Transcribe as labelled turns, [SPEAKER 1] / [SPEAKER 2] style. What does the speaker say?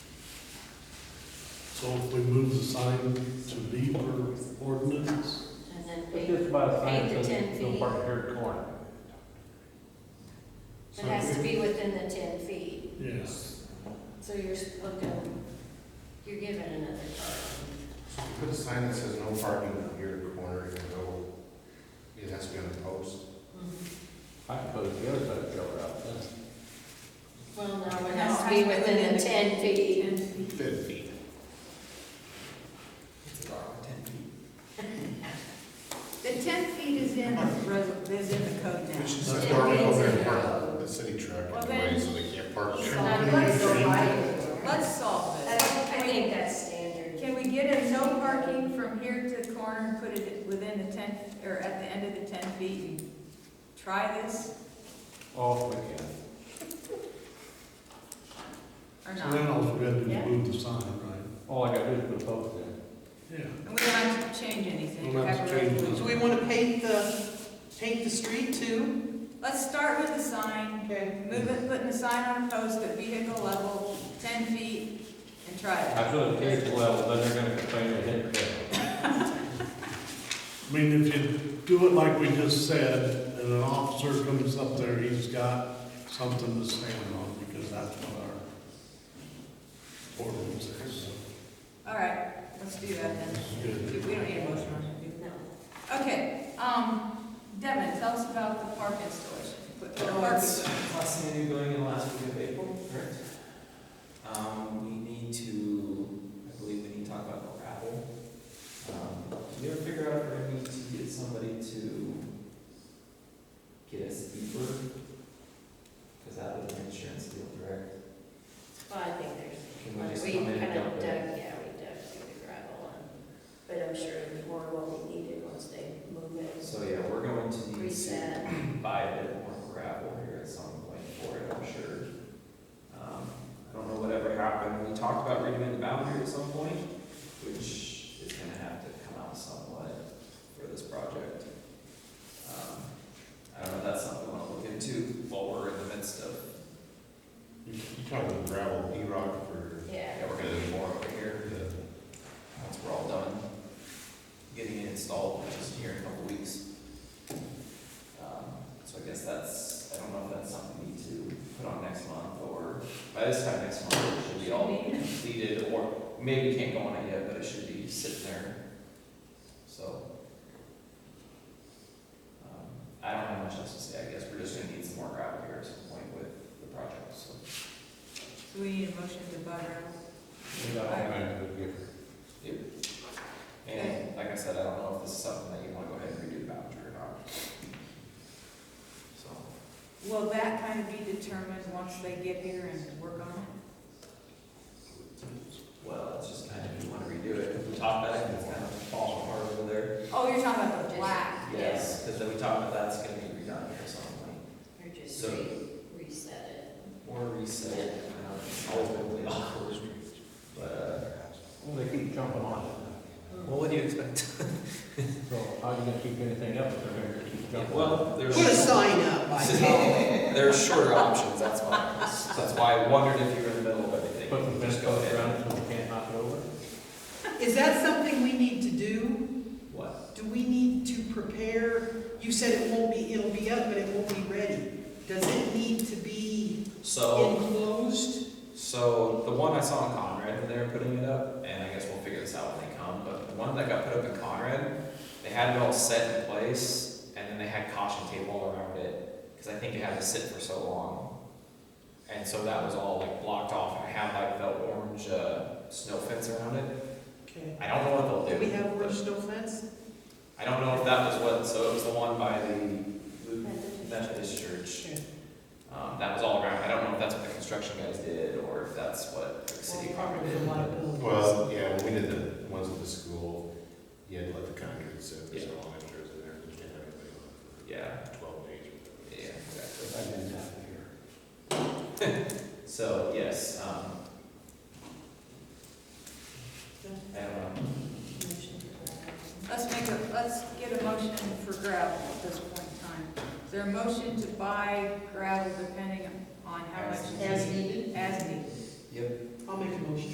[SPEAKER 1] So if we move the sign to be per ordinance,
[SPEAKER 2] And then
[SPEAKER 3] It's
[SPEAKER 2] eight,
[SPEAKER 3] just about a sign
[SPEAKER 2] Eight to
[SPEAKER 3] that
[SPEAKER 2] ten
[SPEAKER 3] says no
[SPEAKER 2] feet.
[SPEAKER 3] parking here at corner.
[SPEAKER 2] it has to be within the ten feet.
[SPEAKER 1] yes.
[SPEAKER 2] So you're looking, you're given another card.
[SPEAKER 4] So you put a sign that says no parking here at the corner and go, it has to be on the post.
[SPEAKER 3] I can put it the other side of the trailer out then.
[SPEAKER 2] Well, no, it has to be within the ten feet.
[SPEAKER 4] Ten feet.
[SPEAKER 5] It's a bar with ten feet.
[SPEAKER 6] The ten feet is in, the res- is in the code now.
[SPEAKER 4] Which is
[SPEAKER 1] That's
[SPEAKER 4] not
[SPEAKER 1] where
[SPEAKER 4] parking
[SPEAKER 2] it
[SPEAKER 4] over
[SPEAKER 2] is.
[SPEAKER 4] in front of the city truck
[SPEAKER 6] Well,
[SPEAKER 4] anyway,
[SPEAKER 6] then-
[SPEAKER 4] so they can't park there.
[SPEAKER 6] Now, let's- Let's solve
[SPEAKER 2] I
[SPEAKER 6] this.
[SPEAKER 2] I think that's standard.
[SPEAKER 6] Can we get a no parking from here to the corner and put it within the ten, or at the end of the ten feet? and Try this
[SPEAKER 3] Oh, we can.
[SPEAKER 6] or
[SPEAKER 1] So
[SPEAKER 6] not?
[SPEAKER 1] then all we gotta do
[SPEAKER 2] Yeah.
[SPEAKER 1] is move the sign, right?
[SPEAKER 3] All I gotta do is put a post in.
[SPEAKER 1] Yeah.
[SPEAKER 6] And we don't have to change anything.
[SPEAKER 1] We'll have to
[SPEAKER 6] Have a
[SPEAKER 1] change
[SPEAKER 6] resolution.
[SPEAKER 5] Do we want to paint the, paint the street too?
[SPEAKER 6] Let's start with the sign,
[SPEAKER 5] Okay.
[SPEAKER 6] move it, putting the sign on a post at vehicle level, ten feet, and try
[SPEAKER 3] I
[SPEAKER 6] it.
[SPEAKER 3] feel it takes a while, but then they're gonna complain they hit the
[SPEAKER 1] I mean, if you do it like we just said, and an officer comes up there, he's got something to stand on, because that's what our ordinance is.
[SPEAKER 6] All right, let's do that then. We
[SPEAKER 1] Good.
[SPEAKER 6] we don't need a motion on it, do
[SPEAKER 2] No.
[SPEAKER 6] we? Okay, um, Devin, tell us about the park installation. Put- put a
[SPEAKER 5] Oh,
[SPEAKER 6] park
[SPEAKER 5] it's
[SPEAKER 6] in.
[SPEAKER 5] Possibly going in the last week of April, correct? Um, we need to, I believe we need to talk about gravel. Um, can you ever figure out if we're gonna need to get somebody to get a steeper? Cause that would an insurance deal, correct?
[SPEAKER 2] Well, I think
[SPEAKER 5] Can we
[SPEAKER 2] there's,
[SPEAKER 5] just
[SPEAKER 2] we
[SPEAKER 5] come in and
[SPEAKER 2] kind of
[SPEAKER 5] dump
[SPEAKER 2] dug,
[SPEAKER 5] it?
[SPEAKER 2] yeah, we dug through the gravel and, but I'm sure it'd be more what we needed once they move it,
[SPEAKER 5] So, yeah, we're going to need to
[SPEAKER 2] reset.
[SPEAKER 5] buy a bit more gravel here at some point for it, I'm sure. Um, I don't know whatever happened, we talked about redoing the boundary at some point, which is gonna have to come out somewhat for this project. Um, I don't know, that's something we wanna look into while we're in the midst of,
[SPEAKER 4] You you talk about gravel, E-rock for
[SPEAKER 2] Yeah.
[SPEAKER 5] yeah, we're gonna do more over here,
[SPEAKER 4] the
[SPEAKER 5] once we're all done getting it installed, which is here in a couple weeks. Um, So I guess that's, I don't know if that's something we need to put on next month, or by this time next month, it should be all completed, or maybe we can't go on it yet, but it should be sitting there, so. um, I don't have much else to say, I guess we're just gonna need some more gravel here at some point with the project, so.
[SPEAKER 6] So we need a motion to buy gravel.
[SPEAKER 3] We got all kinds of good
[SPEAKER 5] Yep. And like I said, I don't know if this is something that you wanna go ahead and redo the voucher or not. So,
[SPEAKER 6] Will that kind of be determined once they get here and work on it?
[SPEAKER 5] well, it's just kind of, you wanna redo it, we talked about it, it's kind of falling apart over there.
[SPEAKER 6] Oh, you're talking about the black.
[SPEAKER 5] Yes, cause then we talked about that's gonna be redone or something,
[SPEAKER 2] Or just
[SPEAKER 5] So-
[SPEAKER 2] re- reset
[SPEAKER 5] or reset, it. I don't know, it's always been really awkward. But,
[SPEAKER 3] Well, they keep jumping on
[SPEAKER 5] uh, well, what do you expect?
[SPEAKER 3] it. So how are you gonna keep anything up if they're gonna keep jumping on it?
[SPEAKER 5] Well, there's.
[SPEAKER 7] Put a sign up, I know.
[SPEAKER 5] There's shorter options, that's why, that's why I wondered if you were in the middle of everything.
[SPEAKER 3] Put some fence
[SPEAKER 5] Just go
[SPEAKER 3] posts
[SPEAKER 5] ahead.
[SPEAKER 3] around it so we can't knock it over?
[SPEAKER 7] Is that something we need to do?
[SPEAKER 5] What?
[SPEAKER 7] Do we need to prepare? You said it won't be, it'll be up, but it won't be ready. Does it need to be
[SPEAKER 5] So,
[SPEAKER 7] enclosed?
[SPEAKER 5] so the one I saw in Conrad, when they were putting it up, and I guess we'll figure this out when they come, but the one that got put up in Conrad, they had it all set in place, and then they had caution tape all around it, because I think it had to sit for so long. And so that was all like blocked off, and it had like the orange, uh, snow fence around it.
[SPEAKER 7] Okay.
[SPEAKER 5] I don't know what
[SPEAKER 7] Do
[SPEAKER 5] they'll do.
[SPEAKER 7] we have orange snow fence?
[SPEAKER 5] I don't know if that was what, so it was the one by the
[SPEAKER 2] it.
[SPEAKER 5] Lutheran Methodist Church.
[SPEAKER 7] Okay.
[SPEAKER 5] Um, that was all around, I don't know if that's what the construction guys did, or if that's what the city proper
[SPEAKER 7] There's
[SPEAKER 5] did.
[SPEAKER 7] a lot of buildings.
[SPEAKER 4] Well, yeah, when we did the ones at the school, you had to let the concrete sit for so
[SPEAKER 5] Yeah.
[SPEAKER 4] long after it was in there, you can't have anybody on it
[SPEAKER 5] Yeah,
[SPEAKER 4] for twelve days. or
[SPEAKER 5] yeah,
[SPEAKER 4] whatever.
[SPEAKER 5] exactly.
[SPEAKER 3] I've been down here.
[SPEAKER 5] So, yes, um. I don't know,
[SPEAKER 2] Motion to-
[SPEAKER 6] Let's make a, let's get a motion for gravel at this point in time. Is there a motion to buy gravel depending on how much?
[SPEAKER 5] As
[SPEAKER 6] is
[SPEAKER 7] As
[SPEAKER 6] needed?
[SPEAKER 7] needed?
[SPEAKER 6] As needed.
[SPEAKER 5] yep.
[SPEAKER 7] I'll make a motion.